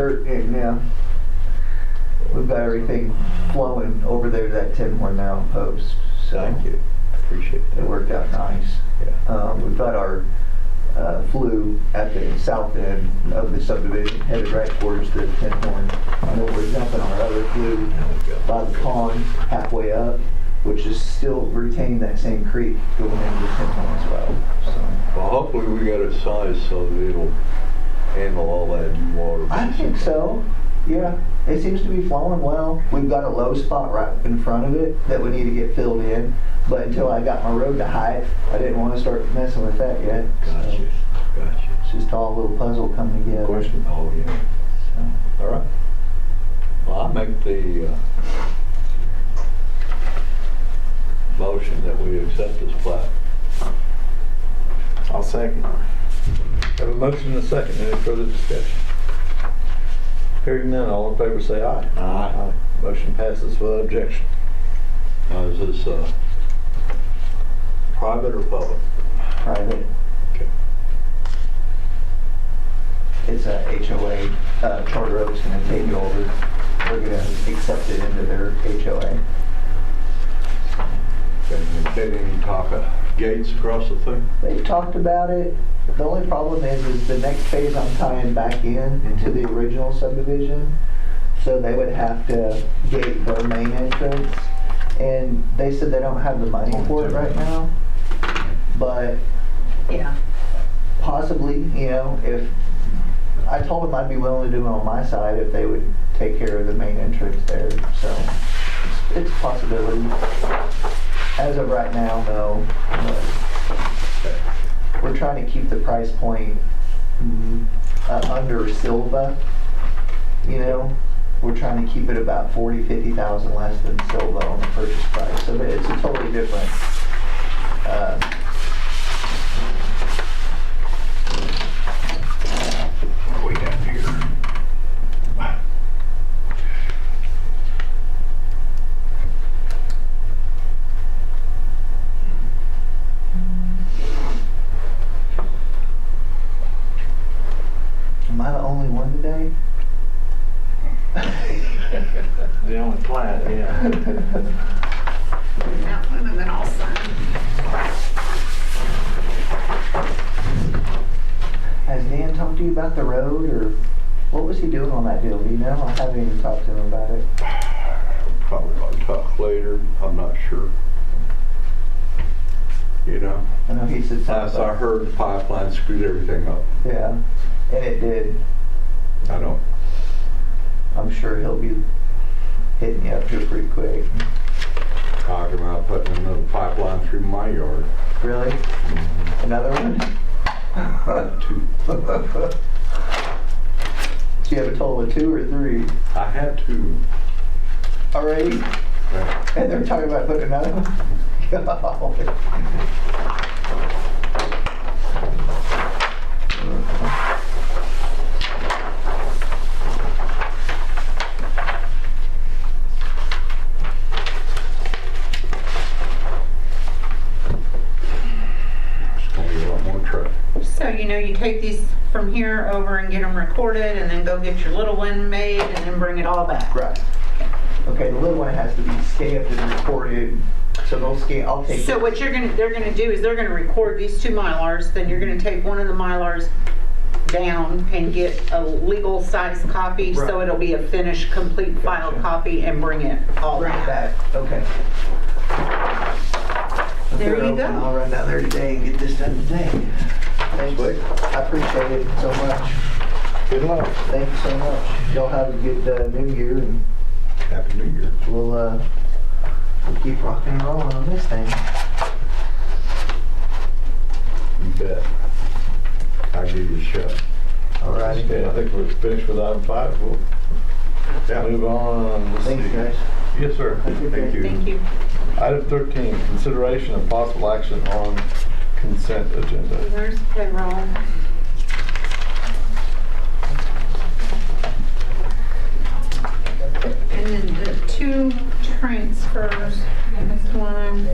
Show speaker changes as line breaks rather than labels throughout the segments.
dirt in now. We've got everything flowing over there to that Tim Horn Mountain post, so
Thank you, appreciate
it
that.
worked out nice.
Yeah.
Um, We've got our uh, flu at the south end of the subdivision, headed right towards the Tim Horn. And then we're dumping our other flu
There we go.
by the pond halfway up, which is still retaining that same creek going into Tim Horn as well, so.
Well, hopefully we got it sized so that it'll handle all that water.
I think so. Yeah, it seems to be flowing well. We've got a low spot right in front of it that we need to get filled in. But until I got my road to height, I didn't want to start messing with that yet. So
Gotcha, gotcha.
It's just all a little puzzle coming together.
Question? Oh, yeah.
So,
All right. Well, I make the uh, motion that we accept this plat.
I'll second.
Have a motion and a second. Any further discussion? Hearing none, all in favor say aye.
Aye.
Motion passes without objection.
Now, is this uh, private or public?
private.
Okay.
It's a HOA. Uh, Charter Oak's going to take it over. We're going to accept it into their HOA.
And Did any talk of gates across the thing?
They've talked about it. The only problem is, is the next phase I'm tying back in to the original subdivision. So they would have to gate their main entrance. And they said they don't have the money for it right now. But
Yeah,
possibly, you know, if, I told them I'd be willing to do it on my side if they would take care of the main entrance there, so it's- it's a possibility. As of right now, no, but we're trying to keep the price point mm, uh, under Silva, you know? We're trying to keep it about forty, fifty thousand less than Silva on the purchase price, so it's a totally different, uh,
Way down here.
am I the only one today?
The only plat, yeah.
that one, and then I'll sign.
Has Dan talked to you about the road or what was he doing on that deal? Do you know? I haven't even talked to him about it.
Probably going to talk later, I'm not sure. You know,
I know he said
as
something.
I heard, the pipeline screwed everything up.
Yeah, and it did.
I don't,
I'm sure he'll be hitting you up here pretty quick.
talking about putting another pipeline through my yard.
Really? Another one?
Two.
So you have a total of two or three
I had two.
already? And they're talking about putting another one? Golly.
It's going to be a lot more traffic.
So, you know, you take these from here over and get them recorded, and then go get your little one made, and then bring it all back.
Right. Okay, the little one has to be stamped and recorded, so they'll scan, I'll take
So
it.
what you're gonna, they're gonna do is they're gonna record these two Mylars, then you're gonna take one of the Mylars down and get a legal size copy, so
Right.
it'll be a finished, complete file
Gotcha.
copy, and bring it all
Bring it
back.
back, okay. If
There
they're
you
open,
go.
I'll run down there today and get this done today. Thanks,
Sweet.
I appreciate it so much.
Good luck.
Thank you so much. Y'all have a good uh, new year and
Happy New Year.
we'll, uh, we'll keep rocking and rolling on this thing.
You bet. I'll give you a shot.
All righty.
Okay, I think we're finished with item five. We'll move on. Let's
Thanks,
see.
guys.
Yes, sir.
Have a good day.
Thank you.
Thank you.
Item 13, consideration of possible action on consent agenda.
There's payroll. And then the two transfers, this one,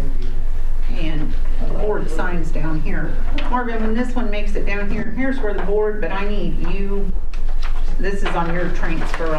and the board signs down here. Morgan, when this one makes it down here, here's where the board, but I need you this is on your transfer